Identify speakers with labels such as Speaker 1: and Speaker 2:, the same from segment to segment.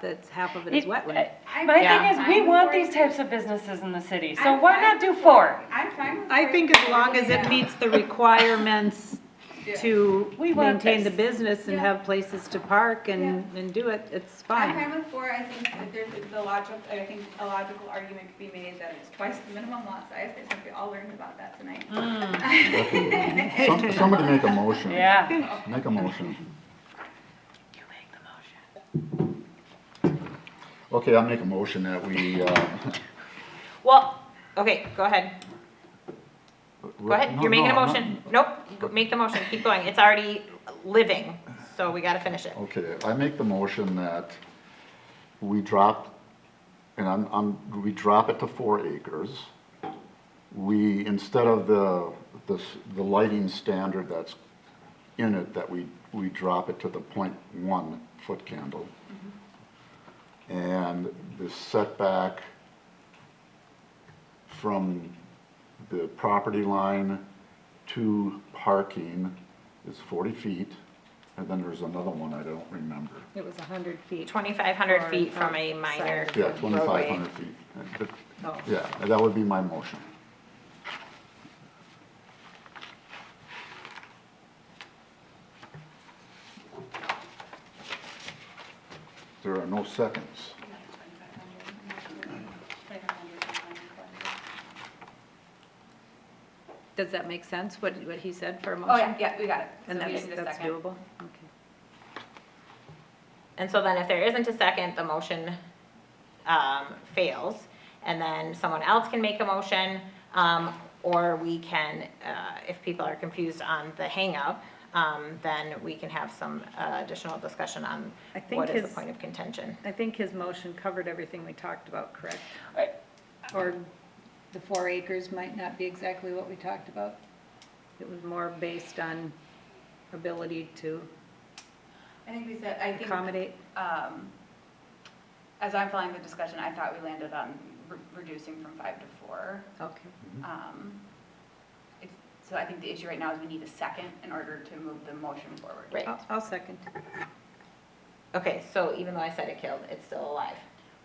Speaker 1: that's half of it is
Speaker 2: It-
Speaker 1: wetland.
Speaker 3: I'm
Speaker 2: My
Speaker 3: fine-
Speaker 2: thing is, we
Speaker 3: I'm
Speaker 2: want
Speaker 3: for
Speaker 2: these
Speaker 3: it.
Speaker 2: types of businesses in the city, so
Speaker 3: I'm
Speaker 2: why
Speaker 3: fine
Speaker 2: not do
Speaker 3: with
Speaker 2: four?
Speaker 3: it. I'm fine with
Speaker 1: I
Speaker 3: four.
Speaker 1: think as long as it
Speaker 3: Yeah.
Speaker 1: meets the requirements
Speaker 3: Yeah.
Speaker 1: to
Speaker 2: We want
Speaker 1: maintain the
Speaker 2: this.
Speaker 1: business and
Speaker 3: Yeah.
Speaker 1: have places to park and, and do it, it's
Speaker 3: I'm
Speaker 1: fine.
Speaker 3: fine with four, I think that there's the logical, I think a logical argument could be made that it's twice the minimum lot size, I think we all learned about that tonight.
Speaker 4: Some- Somebody make a motion.
Speaker 2: Yeah.
Speaker 4: Make a motion. Okay, I'll make a motion that we, uh.
Speaker 5: Well, okay, go ahead. Go
Speaker 4: Go
Speaker 5: ahead. You're making a motion. Nope, go- make the motion. Keep going. It's already living, so we gotta finish it.
Speaker 4: Okay, I make the motion that we drop, and I'm, I'm, we drop it to four acres. We, instead of the, the, s- the lighting standard that's in it, that we, we drop it to the point one foot candle. And the setback from the property line to parking is forty feet. And then there's another one I don't remember.
Speaker 1: It was a hundred feet.
Speaker 5: Twenty-five hundred feet from a minor.
Speaker 4: Yeah, twenty-five
Speaker 5: roadway.
Speaker 4: hundred feet. Uh, but-
Speaker 1: Oh.
Speaker 4: Yeah, that would be my motion. There are no seconds.
Speaker 1: Does that make sense, what, what he said for a motion?
Speaker 3: Oh, yeah, yeah, we got it.
Speaker 1: And
Speaker 3: So
Speaker 1: that's,
Speaker 3: we just need a
Speaker 1: that's
Speaker 3: second.
Speaker 1: doable? Okay.
Speaker 5: And so then if there isn't a second, the motion um, fails. And then someone else can make a motion, um, or we can, uh, if people are confused on the hangup, um, then we can have some uh, additional discussion on
Speaker 1: I think
Speaker 5: what is
Speaker 1: his-
Speaker 5: the point of contention.
Speaker 1: I think his motion covered everything we talked about, correct? Or the four acres might not be exactly what we talked about? It was more based on ability to
Speaker 3: I think we said, I think,
Speaker 1: accommodate.
Speaker 3: um, as I'm following the discussion, I thought we landed on re- reducing from five to four.
Speaker 1: Okay.
Speaker 3: Um, it's- So I think the issue right now is we need a second in order to move the motion forward.
Speaker 5: Right.
Speaker 1: I'll, I'll second.
Speaker 5: Okay, so even though I said it killed, it's still alive.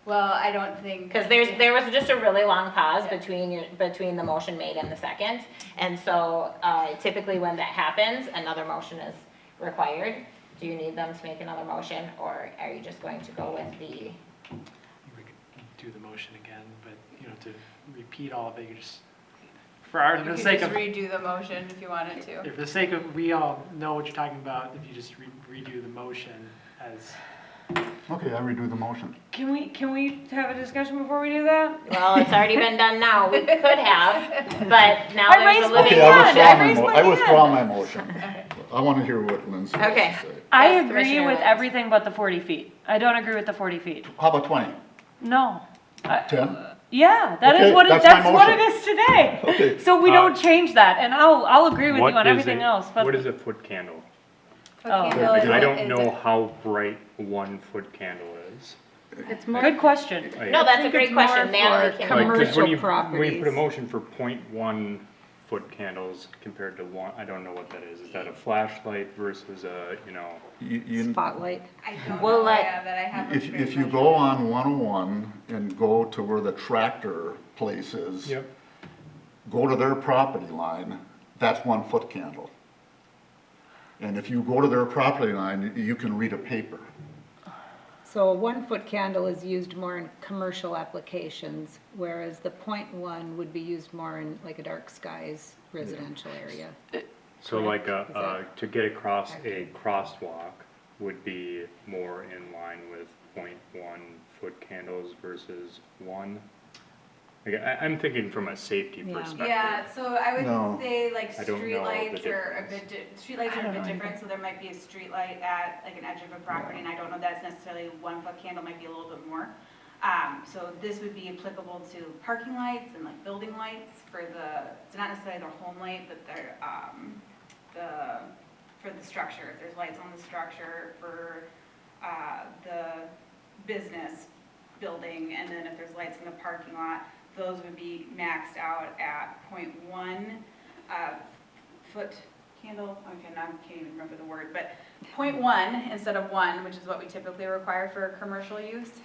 Speaker 3: Well, I don't think.
Speaker 5: Because there's, there was just a really long pause
Speaker 3: Yeah.
Speaker 5: between, your- between the motion made and the second. And so uh, typically when that happens, another motion is required. Do you need them to make another motion, or are you just going to go with the,
Speaker 6: we could do the motion again, but, you know, to repeat all of it, you just, for our,
Speaker 3: You
Speaker 6: for the
Speaker 3: could
Speaker 6: sake
Speaker 3: just
Speaker 6: of, Oh.
Speaker 3: redo the motion if you wanted to.
Speaker 6: if the sake of, we all know what you're talking about, if you just re- redo the motion as,
Speaker 4: Okay, I redo the motion.
Speaker 2: Can we, can we have a discussion before we do that?
Speaker 5: well, it's already been done now, we could have, but now
Speaker 2: I
Speaker 5: there's
Speaker 2: raised
Speaker 5: a
Speaker 2: my
Speaker 5: living
Speaker 4: Okay, I
Speaker 2: hand. I raised
Speaker 4: withdraw my,
Speaker 5: one.
Speaker 4: mo-
Speaker 2: my
Speaker 4: I withdraw my
Speaker 2: hand.
Speaker 4: motion. I want to hear what Lindsay has
Speaker 5: Okay.
Speaker 4: to say.
Speaker 2: I
Speaker 5: Yes,
Speaker 2: agree
Speaker 5: Commissioner
Speaker 2: with
Speaker 5: Lenz.
Speaker 2: everything but the forty feet. I don't agree with the forty feet.
Speaker 4: How about twenty?
Speaker 2: No. I-
Speaker 4: Ten?
Speaker 2: Yeah, that is
Speaker 4: Okay,
Speaker 2: what, it-
Speaker 4: that's my
Speaker 2: that's what it
Speaker 4: motion.
Speaker 2: is today.
Speaker 4: Okay.
Speaker 2: So we
Speaker 7: Uh,
Speaker 2: don't change that, and I'll, I'll agree with you
Speaker 7: What
Speaker 2: on
Speaker 7: is
Speaker 2: everything
Speaker 7: a-
Speaker 2: else, but.
Speaker 7: What is a foot candle?
Speaker 2: Oh.
Speaker 3: Candle is
Speaker 7: I
Speaker 3: a-
Speaker 7: don't
Speaker 3: is
Speaker 7: know
Speaker 3: a-
Speaker 7: how bright one foot candle is.
Speaker 1: It's more,
Speaker 2: Good question.
Speaker 7: Like-
Speaker 5: No, that's a
Speaker 1: think
Speaker 5: great
Speaker 1: it's more
Speaker 5: question, Natalie
Speaker 1: for
Speaker 5: can.
Speaker 7: like, 'cause when
Speaker 1: commercial
Speaker 7: you- When you put a
Speaker 1: properties.
Speaker 7: motion for point one foot candles compared to one, I don't know what that is. Is that a flashlight versus a, you know?
Speaker 4: You, you,
Speaker 1: spotlight.
Speaker 3: I don't
Speaker 5: We'll
Speaker 3: know,
Speaker 5: let-
Speaker 3: yeah, that I have. a
Speaker 4: If,
Speaker 3: great
Speaker 4: if you
Speaker 3: motion.
Speaker 4: go on 101 and go to where the tractor place is. Go to their property line, that's one foot candle. And if you go to their property line, you can read a paper.
Speaker 1: So a one-foot candle is used more in commercial applications, whereas the point one would be used more in like a dark skies residential area.
Speaker 7: So like
Speaker 1: Is
Speaker 7: a,
Speaker 1: that-
Speaker 7: uh, to get across a crosswalk would be more in line with point one foot candles versus one? Like, I, I'm thinking from a safety
Speaker 1: Yeah.
Speaker 7: perspective.
Speaker 3: Yeah, so I
Speaker 4: No.
Speaker 3: would say like
Speaker 7: I don't know the
Speaker 3: streetlights are a bit,
Speaker 7: difference.
Speaker 3: di- streetlights are a bit different, so there might be a streetlight at like an edge of a property, and I don't know that's necessarily one foot candle, might be a little bit more. Um, so this would be applicable to parking lights and like building lights for the, it's not necessarily their home light, but their, um, the, for the structure, if there's lights on the structure for, uh, the business building, and then if there's lights in the parking lot, those would be maxed out at 0.1 uh, foot candle, okay, now I can't even remember the word, but point one instead of one, which is what we typically require for commercial use,